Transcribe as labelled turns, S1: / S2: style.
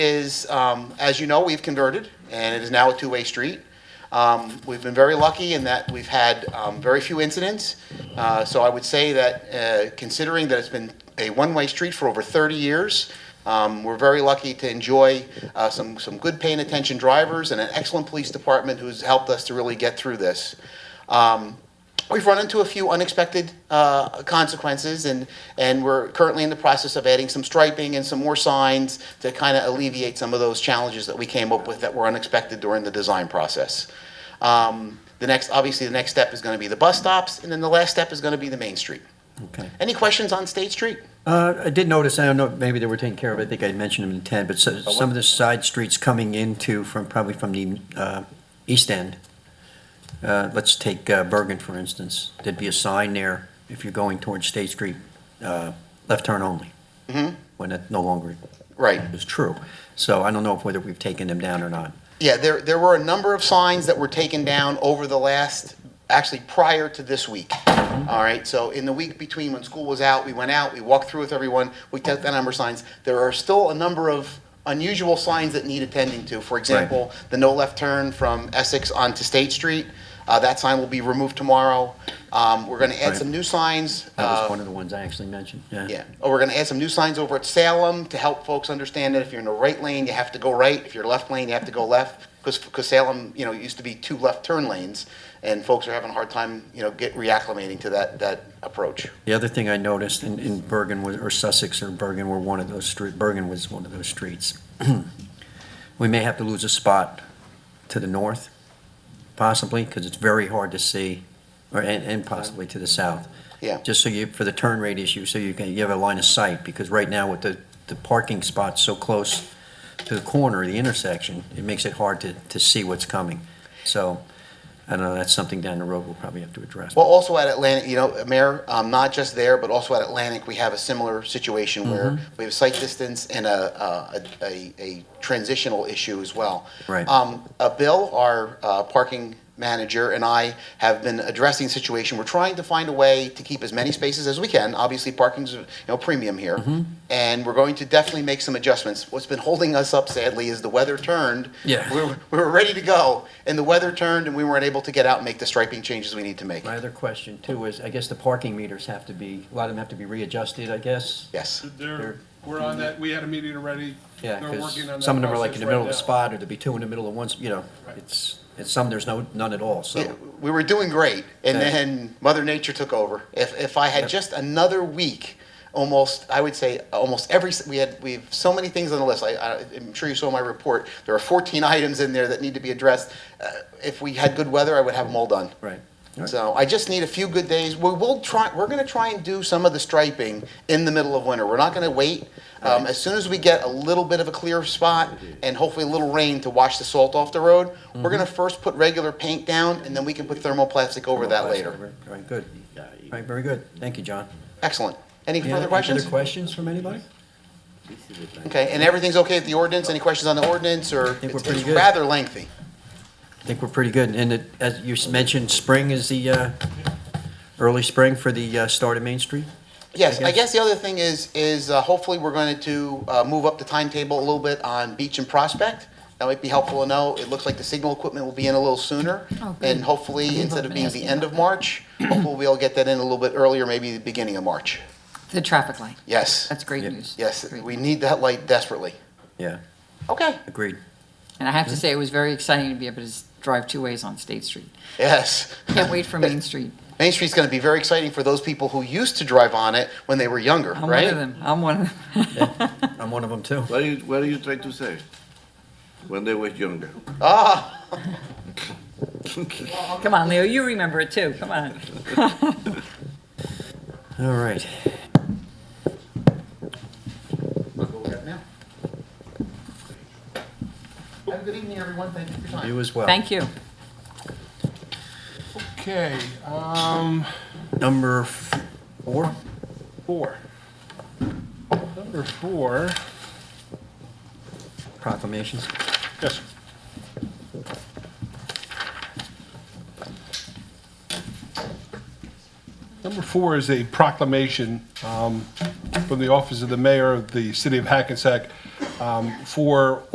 S1: is, um, as you know, we've converted, and it is now a two-way street. Um, We've been very lucky in that we've had um, very few incidents. Uh, So I would say that uh, considering that it's been a one-way street for over 30 years, um, we're very lucky to enjoy uh, some, some good paying attention drivers and an excellent police department who's helped us to really get through this. Um, We've run into a few unexpected uh, consequences, and, and we're currently in the process of adding some striping and some more signs to kind of alleviate some of those challenges that we came up with that were unexpected during the design process. Um, The next, obviously, the next step is going to be the bus stops, and then the last step is going to be the Main Street.
S2: Okay.
S1: Any questions on State Street?
S2: Uh, I did notice, I don't know, maybe they were taken care of, I think I mentioned them in 10, but so- some of the side streets coming into from, probably from the uh, east end. Uh, Let's take uh, Bergen, for instance. There'd be a sign there if you're going towards State Street, uh, left turn only. When that no longer
S1: Right.
S2: is true. So I don't know if whether we've taken them down or not.
S1: Yeah, there, there were a number of signs that were taken down over the last, actually prior to this week.
S2: Mm-hmm.
S1: All right, so in the week between when school was out, we went out, we walked through with everyone, we took that number of signs. There are still a number of unusual signs that need attending to. For example, the no left turn from Essex onto State Street, uh, that sign will be removed tomorrow. Um, we're gonna add
S2: Right.
S1: some new signs.
S2: That
S1: uh,
S2: was one of the ones I actually mentioned, yeah.
S1: yeah, oh, we're gonna add some new signs over at Salem to help folks understand that if you're in the right lane, you have to go right, if you're left lane, you have to go left, because, Salem, you know, used to be two left turn lanes, and folks are having a hard time, you know, get reacclimating to that, that approach.
S2: The other thing I noticed in, in Bergen was, or Sussex or Bergen were one of those street, Bergen was one of those streets. We may have to lose a spot to the north, possibly, because it's very hard to see, or, and, and possibly to the south.
S1: Yeah.
S2: Just so you, for the turn radius, you, so you can, you have a line of sight, because right now with the, the parking spots so close to the corner, the intersection, it makes it hard to, to see what's coming. So, I don't know, that's something down the road we'll probably have to address.
S1: Well, also at Atlantic, you know, Mayor, um, not just there, but also at Atlantic, we have a similar situation where
S2: Mm-hmm.
S1: we have sight distance and a, a, a, a transitional issue as well.
S2: Right.
S1: Um, uh, Bill, our, uh, parking manager, and I have been addressing the situation. We're trying to find a way to keep as many spaces as we can. Obviously, parking's, you know, premium here.
S2: Mm-hmm.
S1: And we're going to definitely make some adjustments. What's been holding us up sadly is the weather turned.
S2: Yeah.
S1: We were, we were ready to go, and the weather turned, and we weren't able to get out and make the striping changes we need to make.
S2: My other question too is, I guess the parking meters have to be, a lot of them have to be readjusted, I guess?
S1: Yes.
S2: They're-
S3: They're, we're on that, we had a meeting already.
S2: Yeah,
S3: They're
S2: because
S3: working on that
S2: some of them are like in
S3: process
S2: the middle
S3: right
S2: of the
S3: now.
S2: spot, or there'd be two in the middle of one, s- you know,
S3: Right.
S2: it's, it's some, there's no, none at all,
S1: Yeah,
S2: so.
S1: we were doing great, and
S2: Okay.
S1: then Mother Nature took over. If if I had
S2: Yep.
S1: just another week, almost I would say almost every s- we had we have so many things on the list. I, I, I'm sure you saw my report. There are 14 items in there that need to be addressed. Uh, if we had good weather, I would have them all done.
S2: Right. All right.
S1: So I just need a few good days. We will try. We're going to try and do some of the striping in the middle of winter. We're not going to wait. Um, as soon as we get a little bit of a clear spot and hopefully a little rain to wash the salt off the road, we're
S2: Mm-hmm.
S1: going to first put regular paint down and then we can put thermoplastic over that later.
S2: All right, good. All right, very good. Thank you, John.
S1: Excellent. Any
S2: Any
S1: further
S2: other- any
S1: questions?
S2: Other questions from anybody?
S1: Okay, and everything's okay with the ordinance? Any questions on the ordinance or?
S2: think we're
S1: it's-
S2: pretty
S1: it's
S2: good.
S1: rather lengthy.
S2: I think we're pretty good, and it, as you s- mentioned, spring is the, uh, early spring for the, uh, start of Main Street?
S1: Yes,
S2: I
S1: I guess the other thing is, is uh, hopefully we're going to uh, move up the timetable a little bit on Beach and Prospect. That might be helpful to know. It looks like the signal equipment will be in a little sooner.
S4: Oh, good.
S1: And hopefully,
S4: People
S1: instead
S4: have
S1: of
S4: been
S1: being the
S4: asking
S1: end of March, hopefully we'll get that in a little bit earlier, maybe the beginning of March.
S4: The traffic light.
S1: Yes,
S4: That's great
S2: Yep.
S4: news.
S1: yes,
S4: Great
S1: we
S4: news.
S1: need that light desperately.
S2: Yeah,
S1: Okay,
S2: agreed.
S4: And I have to say, it was very exciting to be able to s- drive two ways on State Street.
S1: yes.
S4: Can't wait for Main Street.
S1: Main Street's going to be very exciting for those people who used to drive on it when they were younger,
S4: I'm
S1: right?
S4: one of them. I'm one of them.
S2: I'm one of them too.
S5: What are you, what are you trying to say? When they were younger.
S1: Ah,
S4: Come on, Leo, you remember it too. Come on.
S2: All right.
S1: have a good evening, everyone. Thank you for your time.
S2: You as well.
S4: Thank you.
S3: Okay, um,
S2: Number f- four?
S3: four. Number four,
S2: proclamations.
S3: yes. Number four is a proclamation um, from the Office of the Mayor of the City of Hackensack um, for